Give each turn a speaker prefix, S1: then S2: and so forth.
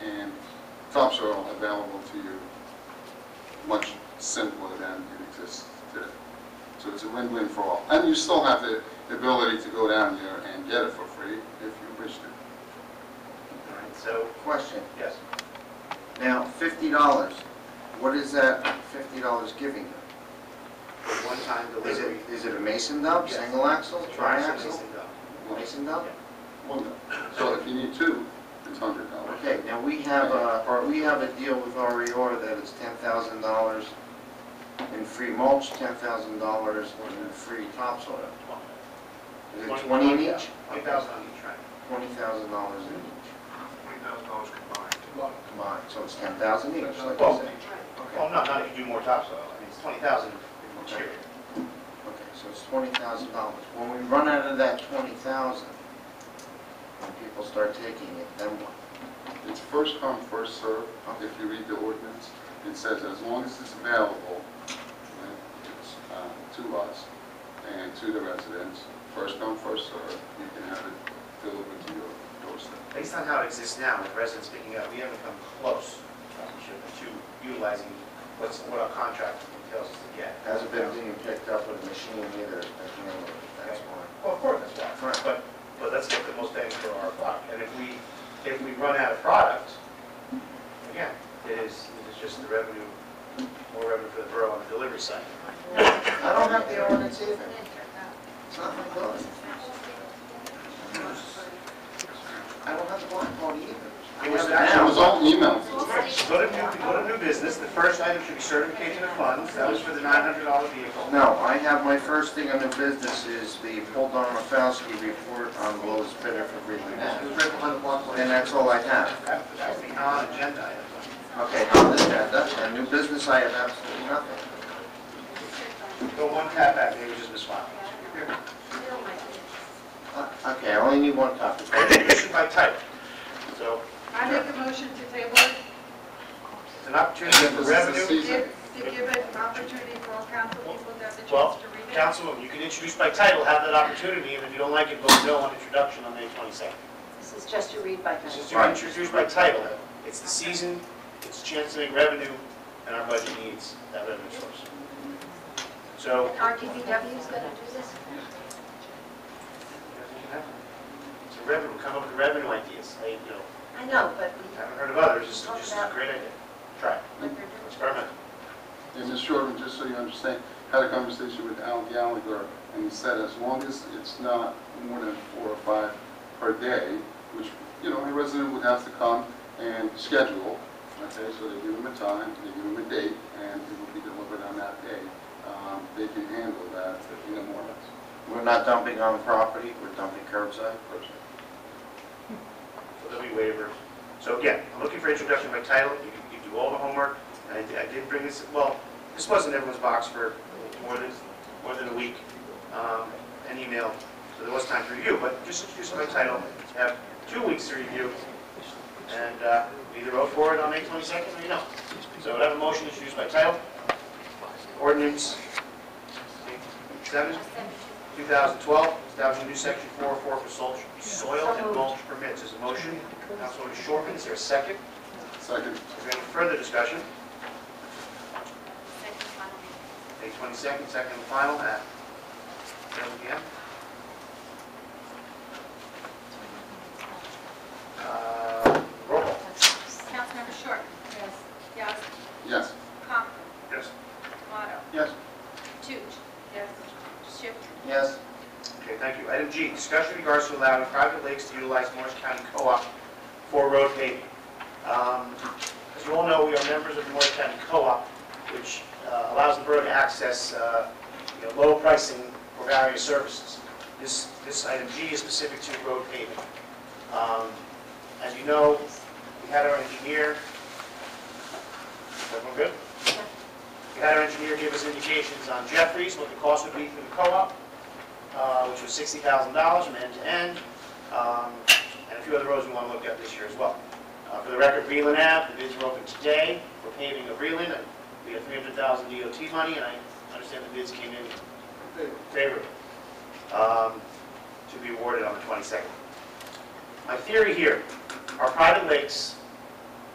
S1: also available to you much simpler than it exists today. So it's a win-win for all. And you still have the ability to go down there and get it for free if you wish to.
S2: All right, So,
S3: Question,
S2: yes,
S3: now, fifty dollars, what is that fifty dollars giving you?
S2: for one-time
S3: Is
S2: delivery.
S3: it, is it a mason dub,
S2: Yes.
S3: single axle,
S2: Triaxle
S3: tri-axle,
S2: isn't done.
S3: mason dub?
S1: Well, So if you need two, it's hundred dollars.
S3: Okay, now, we have a, or we have a deal with REO that is ten thousand dollars in free mulch, ten thousand dollars in free topsoil. Is it twenty in each?
S2: One thousand on each track.
S3: Twenty thousand dollars in each
S4: Twenty thousand dollars combined.
S3: combined, so it's ten thousand each, like I
S2: Well-
S3: said.
S2: Well, no, not if you do more topsoil, I mean, it's twenty thousand each year.
S3: Okay, so it's twenty thousand dollars. When we run out of that twenty thousand, when people start taking it, then what?
S1: It's first come, first served. If you read the ordinance, it says as long as it's available uh, to us and to the residents, first come, first served, you can have it delivered to your doorstep.
S2: Based on how it exists now, with residents picking up, we haven't come close, uh, we should, to utilizing what's, what our contract entails us to get.
S3: Hasn't been being picked up with a machine either, as you know, that's why.
S2: Well, of course, that's why,
S3: Right.
S2: but, but let's get the most bang for our buck, and if we, if we run out of product, again, it is, it is just the revenue, more revenue for the borough on the delivery side.
S3: I don't have the ordinance either. It's not my book. I don't have the blackboard either. I
S2: It was
S3: have
S1: It
S2: actually-
S1: was all emailed.
S2: Go to new, go to new business, the first item should be certification of funds, that was for the nine hundred dollar vehicle.
S3: No, I have, my first thing on the business is the Paul Donofowski report on the lowest bidder for Greenland Avenue. And that's all I have.
S2: That that would be non-agenda item.
S3: Okay, on this agenda, and new business, I have absolutely nothing.
S2: The one tap back, they were just misfiled.
S3: Uh, Okay, I only need one copy.
S2: Issue by title. So
S5: I make a motion to table it,
S2: it's an opportunity for revenue.
S5: to give, to give an opportunity for all council people to have the
S2: Well,
S5: chance to read it.
S2: Councilwoman, you can introduce by title, have that opportunity, and if you don't like it, vote no on introduction on May 22nd.
S6: This is just a read by
S2: This
S6: title.
S2: is to introduce by title. It's the season, it's a chance to make revenue, and our budget needs that revenue source. So,
S6: Our DPW is going to do this?
S2: it's a revenue, come up with revenue ideas. I, you know,
S6: I know, but
S2: haven't heard of others, it's just a great idea. Try it,
S6: we,
S2: experiment.
S1: And Ms. Shortman, just so you understand, had a conversation with Al Gallagher, and he said as long as it's not more than four or five per day, which, you know, a resident would have to come and schedule, okay, so they give them a time, they give them a date, and it will be delivered on that day. Um, They can handle that in the morning.
S3: We're not dumping on property, we're dumping curbside.
S2: So there'll be waivers. So again, I'm looking for introduction by title, you can- you can do all the homework, and I did- I did bring this, well, this wasn't everyone's box for more than, more than a week, um, an email, so there was time to review, but just introduce it by title, have two weeks to review, and uh, either vote for it on May 22nd or you don't. So I have a motion introduced by title, ordinance seven, 2012, establishing new section 404 for sol- soil and mulch permits. Is a motion? Councilwoman Shortman, is there a second?
S1: Second,
S2: Is there any further discussion? May 22nd, second and final, at 7 PM. Uh, Roll call.
S5: Councilmember Short. Yes. Yes.
S1: yes.
S5: Conklin.
S2: Yes.
S5: Tomato.
S1: Yes.
S5: Toots. Yes. Schiff.
S3: Yes,
S2: Okay, thank you. Item G, discussion in regards to allowing private lakes to utilize Morris County Co-op for road paving. Um, As you all know, we are members of the Morris County Co-op, which uh, allows the borough to access, uh, you know, low pricing for various services. This, this item G is specific to road paving. Um, As you know, we had our engineer, everyone good? We had our engineer give us indications on Jeffries, what the cost would be for the co-op, uh, which was sixty thousand dollars from end to end, um, and a few other roads we want to look at this year as well. Uh, For the record, Reland Ave, the bids were open today, we're paving of Reland, and we have three hundred thousand DOT money, and I understand the bids came in favorably, um, to be awarded on the twenty-second. My theory here, our private lakes